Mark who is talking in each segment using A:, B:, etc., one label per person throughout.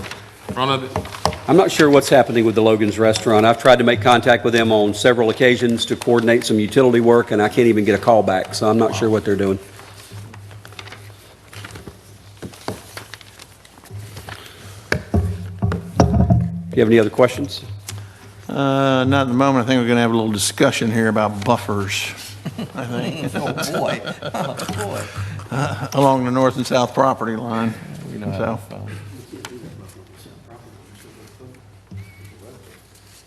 A: front of it?
B: I'm not sure what's happening with the Logan's Restaurant. I've tried to make contact with them on several occasions to coordinate some utility work, and I can't even get a call back, so I'm not sure what they're doing. Do you have any other questions?
C: Uh, Not at the moment. I think we're going to have a little discussion here about buffers, I think,
D: Oh, boy. Oh,
C: along the north and south property line.
D: boy. We know how
C: So
D: to phone.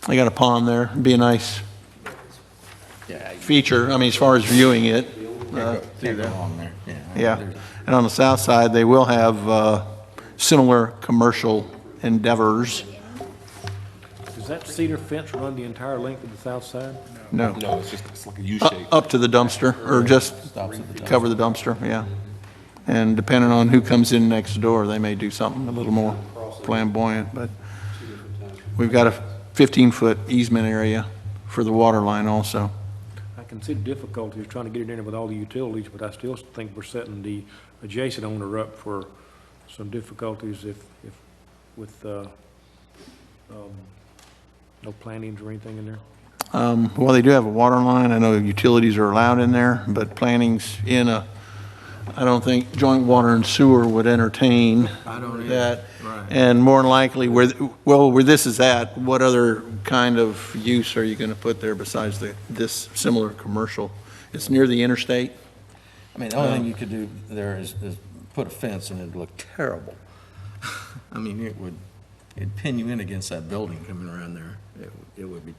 C: they got a pond there. Be a nice
D: Yeah, you
C: feature, I mean, as far as viewing it. uh,
D: can't go- Can't go wrong there.
C: Yeah. And on the south side, they will have uh, similar commercial endeavors.
E: Does that cedar fence run the entire length of the south side?
C: No.
A: No, it's just, it's like a U
C: Up
A: shape.
C: up to the dumpster, or just
D: Stops at the dumpster.
C: cover the dumpster, yeah. And depending on who comes in next door, they may do something a little more flamboyant, but we've got a 15-foot easement area for the water line also.
E: I can see the difficulty of trying to get it in with all the utilities, but I still think we're setting the adjacent owner up for some difficulties if, if, with, uh, um, no plantings or anything in there.
C: Um, Well, they do have a water line, I know utilities are allowed in there, but planning's in a, I don't think joint water and sewer would entertain that. And more than likely, where, well, where this is at, what other kind of use are you going to put there besides the, this similar commercial? It's near the interstate?
D: I mean, the only thing you could do there is, is put a fence and it'd look terrible. I mean, it would, it'd pin you in against that building coming around there. It, it would be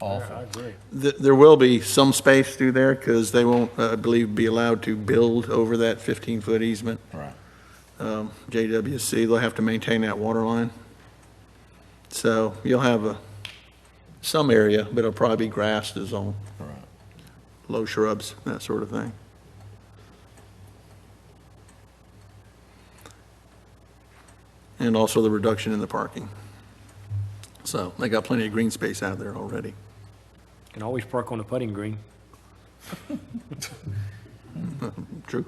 D: awful.
E: agree.
C: Th- There will be some space through there because they won't, uh, I believe, be allowed to build over that 15-foot easement.
D: Right.
C: um, JWC, they'll have to maintain that water line. So you'll have a, some area, but it'll probably be grass, there's all
D: Right.
C: low shrubs, that sort of thing. And also the reduction in the parking. So they got plenty of green space out there already.
E: Can always park on the putting green.
C: True?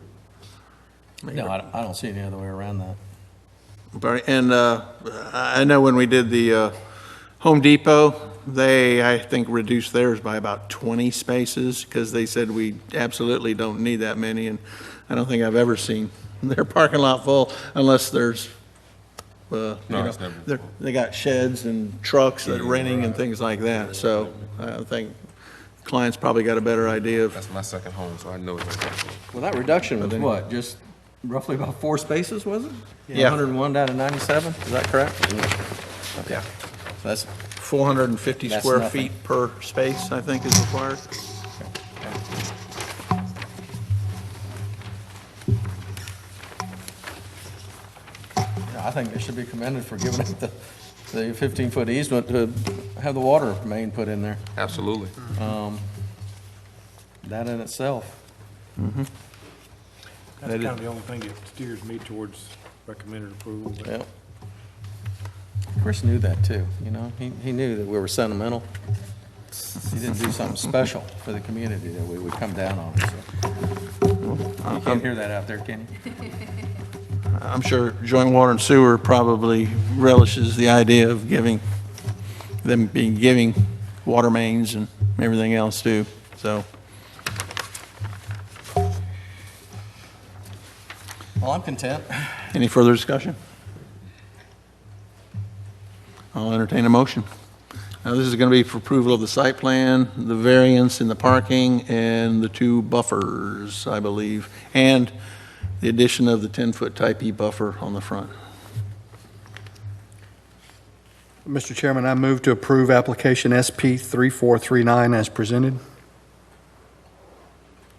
D: No, I, don't- I don't see any other way around that.
C: Barney, And uh, I I know when we did the uh, Home Depot, they, I think, reduced theirs by about 20 spaces because they said we absolutely don't need that many. And I don't think I've ever seen their parking lot full unless there's, uh, you
A: No,
C: know,
A: it's never
C: they're-
A: full.
C: they got sheds and trucks that are renting and things like that. So I think clients probably got a better idea of,
A: That's my second home, so I know it's like that.
D: Well, that reduction was
C: then-
D: what, just roughly about four spaces, was it?
C: Yeah.
D: 101 down to 97, is that correct?
C: yeah,
D: So That's,
C: 450
D: That's
C: square
D: nothing.
C: feet per space, I think, is required.
D: you know, I think they should be commended for giving up the, the 15-foot easement to have the water main put in there.
A: Absolutely.
D: That in itself.
E: That's kind of the only thing that steers me towards recommended approval. but-
D: Yep. Chris knew that too, you know, he, he knew that we were sentimental. He didn't do something special for the community that we would come down on, so. You can't hear that out there, can you?
C: I'm sure joint water and sewer probably relishes the idea of giving, them being giving water mains and everything else too, so.
D: Well, I'm content.
C: Any further discussion? I'll entertain a motion. Now, this is going to be for approval of the site plan, the variance in the parking, and the two buffers, I believe, and the addition of the 10-foot type E buffer on the front.
F: Mr. Chairman, I move to approve application SP 3439 as presented.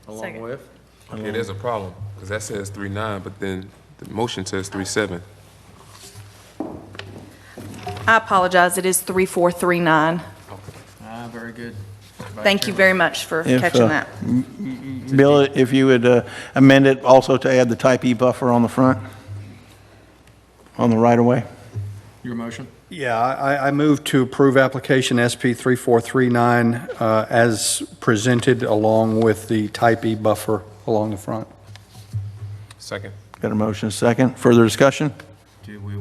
D: Along
G: Second.
D: with,
A: Yeah, there's a problem, because that says three nine, but then the motion says three seven.
G: I apologize, it is 3439.
D: ah, very good.
G: Thank you very much for
C: If, uh,
G: catching that.
C: Bill, if you would uh, amend it also to add the type E buffer on the front, on the right-of-way.
D: Your motion?
F: Yeah, I, I- I move to approve application SP 3439 uh, as presented along with the type E buffer along the front.
A: Second.
C: Got a motion, a second. Further discussion?
D: Do we